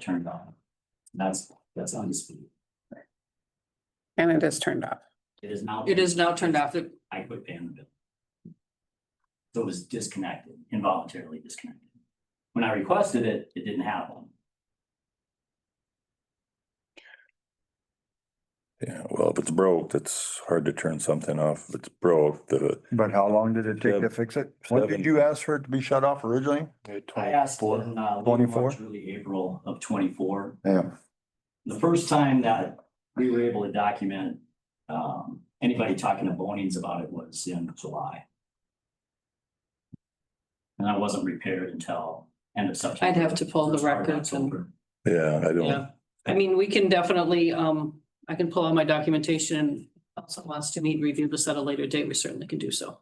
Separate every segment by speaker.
Speaker 1: turned on. That's, that's undisputed.
Speaker 2: and it is turned off.
Speaker 1: It is now.
Speaker 3: It is now turned off. It-
Speaker 1: I quit paying the bill. So it was disconnected, involuntarily disconnected. When I requested it, it didn't have one.
Speaker 4: Yeah, well, if it's broke, it's hard to turn something off. If it's broke, the.
Speaker 5: But how long did it take to
Speaker 4: Seven-
Speaker 5: fix it? When
Speaker 4: seven.
Speaker 5: did you ask for it to be shut off originally?
Speaker 1: I asked in uh, late
Speaker 5: 24?
Speaker 1: March, early April of twenty-four.
Speaker 5: Yeah,
Speaker 1: The first time that we were able to document, um, anybody talking to Bonings about it was in July. And I wasn't repaired until end of September.
Speaker 3: I'd have to pull the
Speaker 1: first part of
Speaker 3: records and-
Speaker 1: October.
Speaker 4: Yeah, I don't,
Speaker 3: Yeah. I mean, we can definitely, um, I can pull out my documentation and also wants to meet, review this at a later date. We certainly can do so.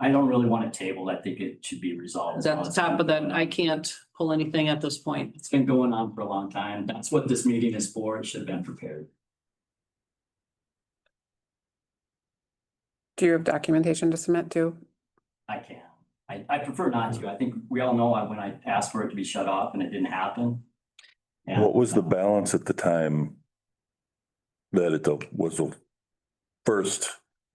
Speaker 1: I don't really want to table. I think it should be resolved.
Speaker 3: It's at the top of that. I can't pull anything at this point.
Speaker 1: It's been going on for a long time. That's what this meeting is for. It should have been prepared.
Speaker 2: Do you have documentation to submit to?
Speaker 1: I can. I, I prefer not to. I think we all know I- when I asked for it to be shut off and it didn't happen. And-
Speaker 4: what was the balance at the time? That it was the first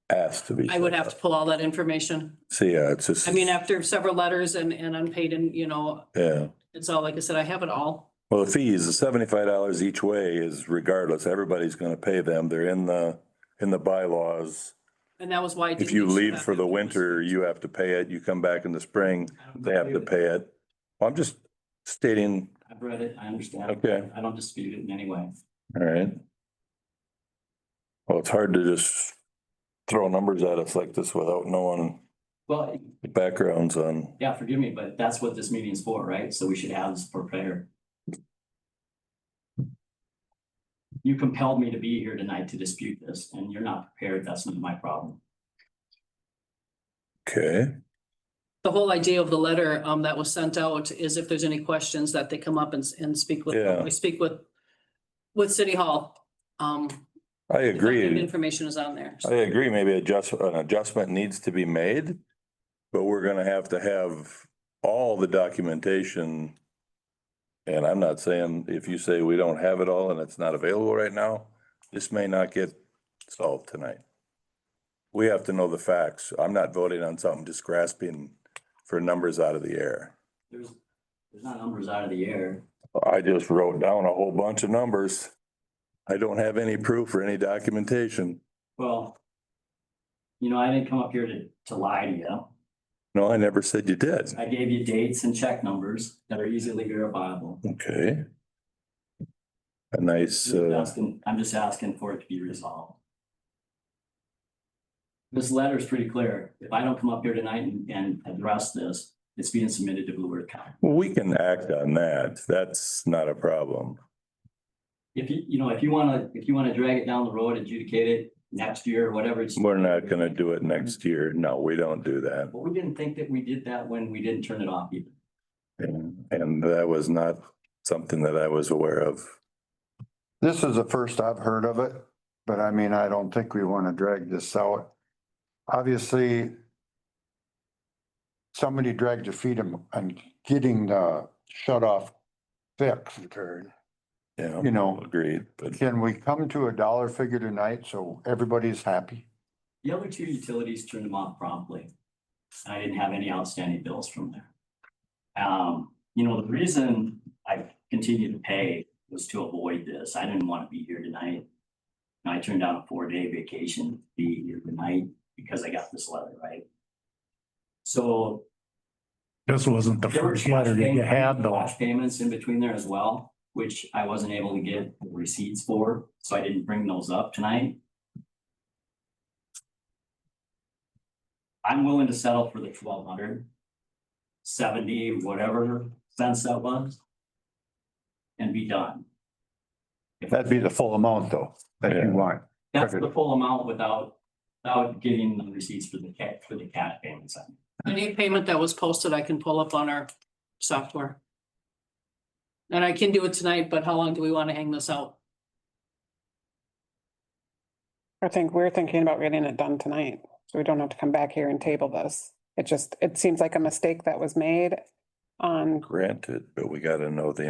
Speaker 4: asked to be.
Speaker 3: I would have to pull all that information.
Speaker 4: See, yeah, it's just.
Speaker 3: I mean, after several letters and, and unpaid and, you know,
Speaker 4: Yeah,
Speaker 3: it's all, like I said, I have it all.
Speaker 4: well, the fees, the seventy-five dollars each way is regardless, everybody's gonna pay them. They're in the, in the bylaws.
Speaker 3: And that was why. I
Speaker 4: If
Speaker 3: didn't
Speaker 4: you
Speaker 3: get
Speaker 4: leave
Speaker 3: back
Speaker 4: for
Speaker 3: to
Speaker 4: the
Speaker 3: this.
Speaker 4: winter, you have to pay it. You come back in the spring, they have to pay it. I'm just stating,
Speaker 1: I've read it. I understand.
Speaker 4: Okay.
Speaker 1: I don't dispute it in any way.
Speaker 4: all right. Well, it's hard to just throw numbers at us like this without knowing
Speaker 1: Well,
Speaker 4: the backgrounds on.
Speaker 1: yeah, forgive me, but that's what this meeting is for, right? So we should have this prepared. You compelled me to be here tonight to dispute this and you're not prepared. That's not my problem.
Speaker 4: Okay,
Speaker 3: The whole idea of the letter, um, that was sent out is if there's any questions that they come up and, s- and speak with,
Speaker 4: Yeah.
Speaker 3: we speak with, with City Hall. Um,
Speaker 4: I
Speaker 3: the document
Speaker 4: agree.
Speaker 3: Information is on there.
Speaker 4: I agree. Maybe adjust, an adjustment needs to be made. But we're gonna have to have all the documentation. And I'm not saying, if you say we don't have it all and it's not available right now, this may not get solved tonight. We have to know the facts. I'm not voting on something, just grasping for numbers out of the air.
Speaker 1: There's, there's not numbers out of the air.
Speaker 4: I just wrote down a whole bunch of numbers. I don't have any proof or any documentation.
Speaker 1: Well, you know, I didn't come up here to, to lie to you.
Speaker 4: No, I never said you did.
Speaker 1: I gave you dates and check numbers that are easily verifiable.
Speaker 4: Okay. A nice,
Speaker 1: I'm
Speaker 4: uh,
Speaker 1: asking- I'm just asking for it to be resolved. This letter is pretty clear. If I don't come up here tonight and, and address this, it's being submitted to Blue Bird County.
Speaker 4: well, we can act on that. That's not a problem.
Speaker 1: If you, you know, if you wanna, if you wanna drag it down the road, adjudicate it next year or whatever. it's-
Speaker 4: We're not gonna do it next year. No, we don't do that.
Speaker 1: But we didn't think that we did that when we didn't turn it off either.
Speaker 4: And and that was not something that I was aware of.
Speaker 5: this is the first I've heard of it, but I mean, I don't think we want to drag this out. Obviously, somebody dragged their feet on on getting the shut off fixed.
Speaker 4: Yeah,
Speaker 5: You know.
Speaker 4: agreed, but
Speaker 5: Can we come to a dollar figure tonight so everybody's happy?
Speaker 1: The other two utilities turned them off promptly. And I didn't have any outstanding bills from there. Um, you know, the reason I continued to pay was to avoid this. I didn't want to be here tonight. And I turned down a four-day vacation to be here tonight because I got this letter, right? So
Speaker 6: This wasn't the
Speaker 1: there were
Speaker 6: first letter that you had though.
Speaker 1: cash Payments in between there as well, which I wasn't able to get receipts for, so I didn't bring those up tonight. I'm willing to settle for the twelve hundred. Seventy, whatever cents that was. And be done. If
Speaker 5: That'd be the full amount though, that
Speaker 4: Yeah.
Speaker 5: you want.
Speaker 1: That's the full amount without, without getting the receipts for the cat, for the cash payments.
Speaker 3: Any payment that was posted, I can pull up on our software. And I can do it tonight, but how long do we want to hang this out?
Speaker 2: I think we're thinking about getting it done tonight, so we don't have to come back here and table this. It just, it seems like a mistake that was made on
Speaker 4: granted, but we gotta know the